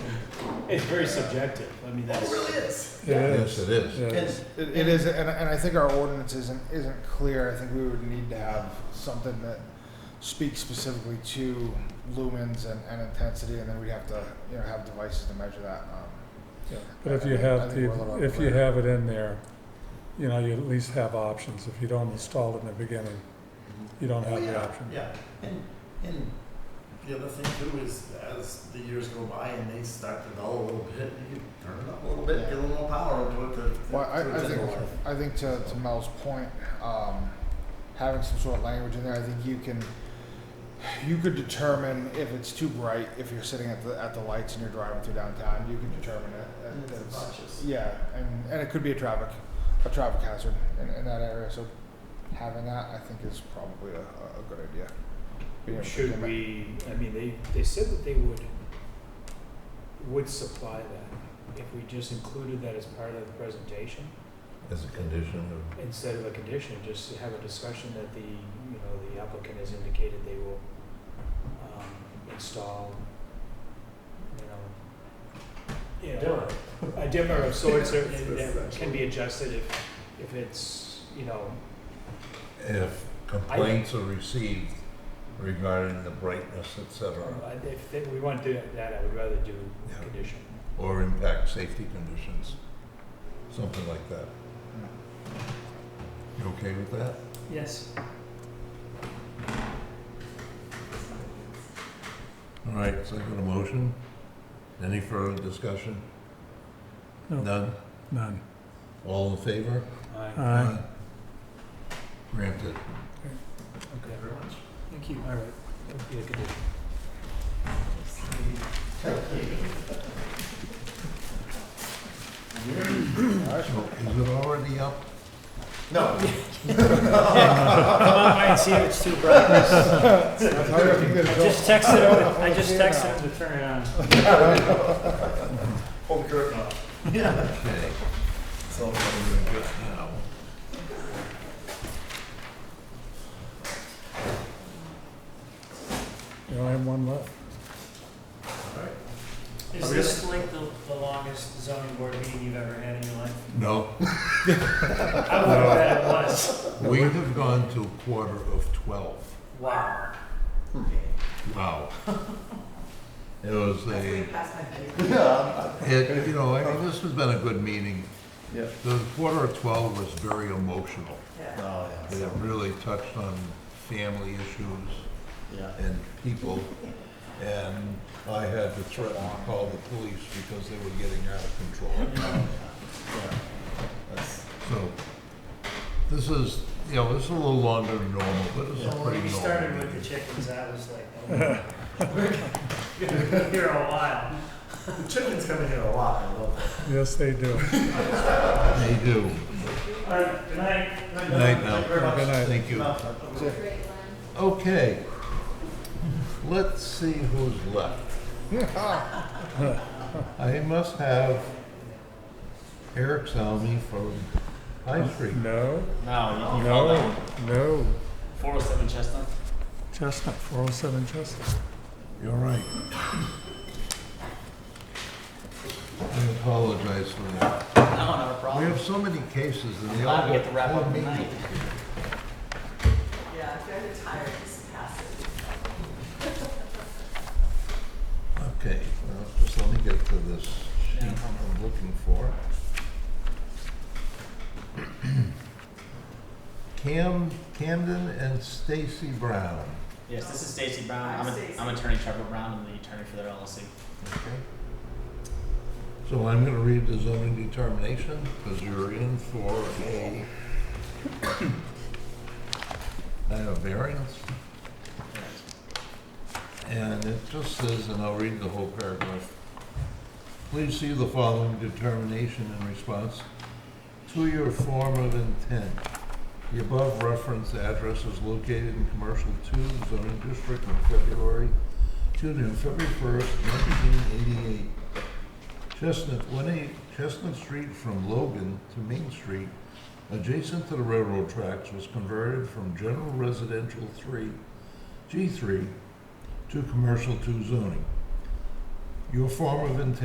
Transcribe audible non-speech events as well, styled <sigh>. It's very subjective. I mean, It that's. really is. It Yes, it is. is. It And is. It, it is, and, and I think our ordinance isn't, isn't clear. I think we would need to have something that speaks specifically to lumens and, and intensity, and then we'd have to, you know, have devices to measure that. Um, Yeah. But if you I have, think we're a the little if you overwhelmed. have it in there, you know, you at least have options. If you don't install it in the beginning, you don't Oh, have the yeah, option. Yeah, and, and the other thing too is as the years go by and they start to dull a little bit, you can turn it up a little bit, get a little more power into it to. to- Well, I, to I think, generate. I think to, to Mel's point, um, having some sort of language in there, I think you can, you could determine if it's too bright, if you're sitting at the, at the lights and you're driving through downtown, you can determine it. that And it's it's- obnoxious. Yeah, and, and it could be a traffic, a traffic hazard in, in that area, so having that, I think, is probably a, a a good idea. Being able to Should limit- we, I mean, they, they said that they would, would supply that if we just included that as part of the presentation As a condition of, instead of a condition, just have a discussion that the, you know, the applicant has indicated they will, um, install, you know, you know, Dimmer. a dimmer of sorts or, and That's that can be actually- adjusted if, if it's, you know, if complaints are received regarding the brightness, et cetera, I- Uh, if they- we want to do that, I would rather do Yeah. condition. or impact safety conditions, something like that. You okay with that? Yes. All right, so I got a motion. Any further discussion? No. None? None. All in favor? Aye. Aye. Granted. Thank you very much. Thank you. All right. Thank you. Condition. So is it already up? No, Come on by and see if it's too <laughs> bright. That's how you can get I it just built. texted him, I just texted him to turn it on. hold the curtain up. Okay. So, Good now. You only have one left. Is this like the, the longest zoning board meeting you've ever had in <laughs> your life? No, I would have bet it was. we have gone to quarter of twelve. Wow. Hmm. Wow. It was a, yeah, it, you know, I mean, this has been a good meeting. Yeah. The quarter of twelve was very emotional. oh, yeah, It so, really touched on family issues. yeah. and people. And I had to threaten to call the police because they were getting out of control. Yeah. That's- So this is, you know, this is a little longer than normal, but it's a Yeah. pretty normal. When you started with the meeting. chickens, I was like, oh, <laughs> you're gonna be here a while. The chickens come in here a lot, I love it. Yes, they do. They do. All right, good night. Night Thank now. you very much. Good night. Thank you. No. Okay. Let's see who's left. I must have Eric Salmi from High Street. No, No, you, you found that no, one. no. 407 Chestnut. Chestnut, 407 Chestnut. You're right. I apologize for that. No, not a We problem. have so many cases and they all Glad go. we get to wrap full up meeting. tonight. Yeah, if you're tired, just pass it. Okay, well, just let me get to this sheet I'm looking for. <clears throat> Cam Camden and Stacy Brown. Yes, this is Stacy Brown. I'm, Hi, a, Stacy. I'm attorney Trevor Brown. I'm the attorney for their LLC. Okay. So I'm gonna read the zoning determination, because you're in for a, a variance. And it just says, and I'll read the whole paragraph. Please see the following determination in response to your form of intent. The above referenced address is located in Commercial Two zoning district on February June and February first, nineteen eighty-eight. Chestnut, one eight, Chestnut Street from Logan to Main Street, adjacent to the railroad tracks, was converted from general residential three, G three, to commercial two zoning. Your form of intent